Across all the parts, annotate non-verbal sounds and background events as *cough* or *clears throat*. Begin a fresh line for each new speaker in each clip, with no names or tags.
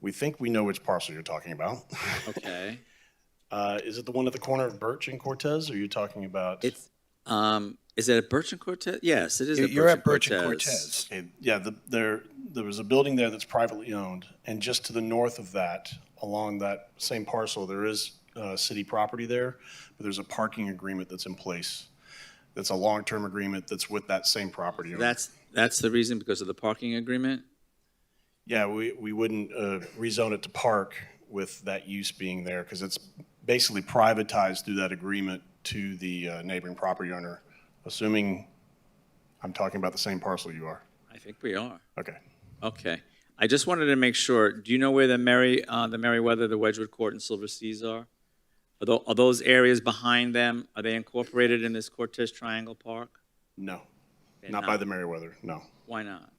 We think we know which parcel you're talking about.
Okay.
Uh, Is it the one at the corner of Birch and Cortez, or are you talking about?
It's, um, is it at Birch and Cortez? Yes, it is.
You're at Birch and Cortez.
Okay, Yeah, the, there, there was a building there that's privately owned, and just to the north of that, along that same parcel, there is, uh, city property there, but there's a parking agreement that's in place. That's a long-term agreement that's with that same property. owner.
That's, that's the reason because of the parking agreement?
Yeah, we, we wouldn't, uh, rezone it to park with that use being there, because it's basically privatized through that agreement to the uh, neighboring property owner, assuming I'm talking about the same parcel you are.
I think we are.
Okay.
Okay. I just wanted to make sure, do you know where the Merry, uh, the Merriweather, the Wedgewood Court and Silver Seas are? Are tho- are those areas behind them, are they incorporated in this Cortez Triangle Park?
No,
They're
not by the Meriwether, no.
Why not?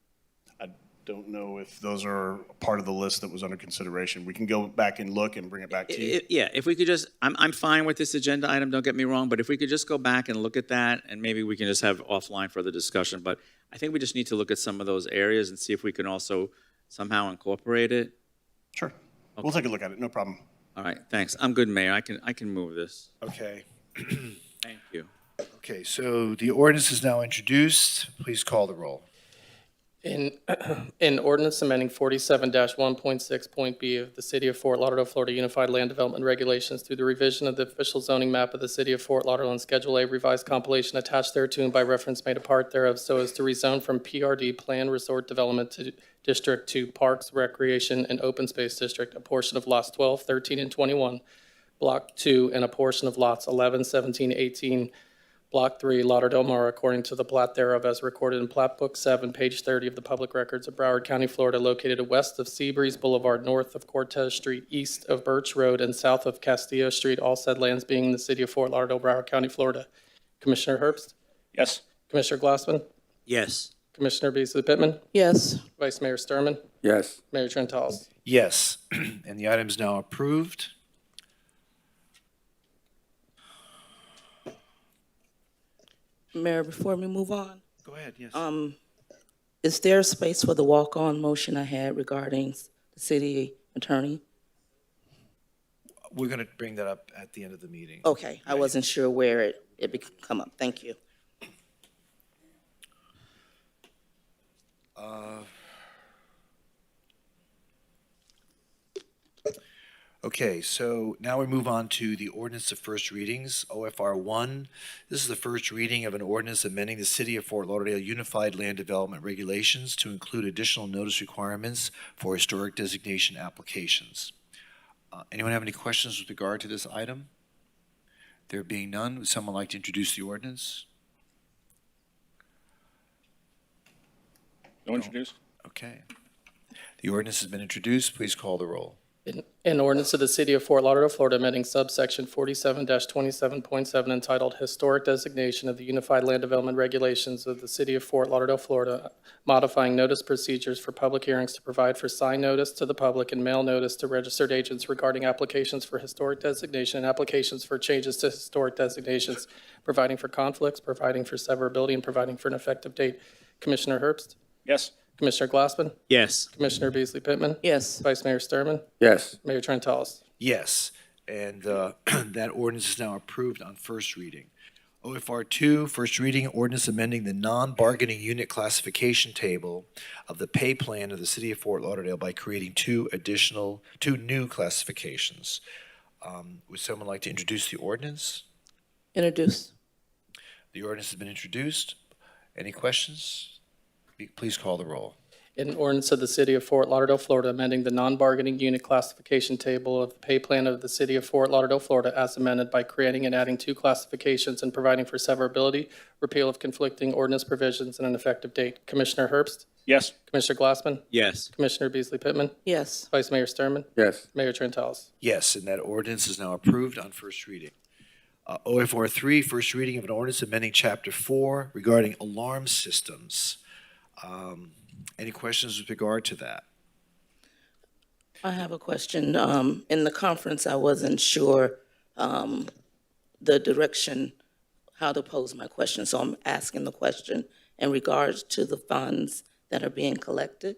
I don't know if those are part of the list that was under consideration. We can go back and look and bring it back
I-
to you.
I- Yeah, if we could just, I'm, I'm fine with this agenda item, don't get me wrong, but if we could just go back and look at that, and maybe we can just have offline further discussion, but I think we just need to look at some of those areas and see if we can also somehow incorporate it.
Sure. We'll take a look at it, no problem.
All right, thanks. I'm good, Mayor. I can, I can move this.
Okay.
Thank you.
Okay, so the ordinance is now introduced. Please call the roll.
In, *clears throat* in ordinance amending forty-seven one point six point B of the City of Fort Lauderdale, Florida Unified Land Development Regulations through the revision of the official zoning map of the City of Fort Lauderdale and Schedule A revised compilation attached thereto and by reference made a part thereof so as to rezone from PRD Plan Resort Development to District to Parks, Recreation, and Open Space District, a portion of lots 12, 13, and twenty-one, Block two, and a portion of lots 11, 17, 18. Block 3, Lauderdale Mara, according to the plat thereof as recorded in Plat Book 7, page 30 of the Public Records of Broward County, Florida, located west of Seabreeze Boulevard, north of Cortez Street, east of Birch Road, and south of Castillo Street, all said lands being in the city of Fort Lauderdale, Broward County, Florida. Commissioner Herbst?
Yes.
Commissioner Glassman?
Yes.
Commissioner Beasley Pittman?
yes,
Vice Mayor Sturman,
Yes.
Mayor Trentalis?
Yes, *clears throat* and the item is now approved.
Mayor, before we move on, um,
Go ahead, yes.
is there space for the walk-on motion I had regarding the city attorney?
We're going to bring that up at the end of the meeting.
Okay, I wasn't sure where it, it would come up, thank you.
Okay, so now we move on to the ordinance of first readings, OFR 1. This is the first reading of an ordinance amending the City of Fort Lauderdale Unified Land Development Regulations to include additional notice requirements for historic designation applications. Uh, Anyone have any questions with regard to this item? There being none, would someone like to introduce the ordinance?
No introduced?
Okay. The ordinance has been introduced. Please call the roll.
In- An ordinance of the City of Fort Lauderdale, Florida, amending subsection forty-seven twenty-seven point seven entitled Historic Designation of the Unified Land Development Regulations of the City of Fort Lauderdale, Florida, modifying notice procedures for public hearings to provide for sign notice to the public and mail notice to registered agents regarding applications for historic designation and applications for changes to historic designations, providing for conflicts, providing for severability, and providing for an effective date. Commissioner Herbst?
Yes.
Commissioner Glassman?
Yes.
Commissioner Beasley Pittman?
Yes,
Vice Mayor Sturman,
Yes.
Mayor Trentalis?
Yes, and uh, *clears throat* that ordinance is now approved on first reading. OFR 2, first reading, ordinance amending the non-bargaining unit classification table of the pay plan of the City of Fort Lauderdale by creating two additional, two new classifications. Um, Would someone like to introduce the ordinance?
introduce,
The ordinance has been introduced. Any questions? Please call the roll.
An ordinance of the City of Fort Lauderdale, Florida, amending the non-bargaining unit classification table of the pay plan of the City of Fort Lauderdale, Florida, as amended by creating and adding two classifications and providing for severability, repeal of conflicting ordinance provisions, and an effective date. Commissioner Herbst?
Yes.
Commissioner Glassman?
Yes.
Commissioner Beasley Pittman?
yes,
Vice Mayor Sturman,
Yes.
Mayor Trentalis?
Yes, and that ordinance is now approved on first reading. Uh, OFR 3, first reading of an ordinance amending Chapter 4 regarding alarm systems. Um, Any questions with regard to that?
I have a question. Um, in the conference, I wasn't sure, um, the direction, how to pose my question, so I'm asking the question in regards to the funds that are being collected.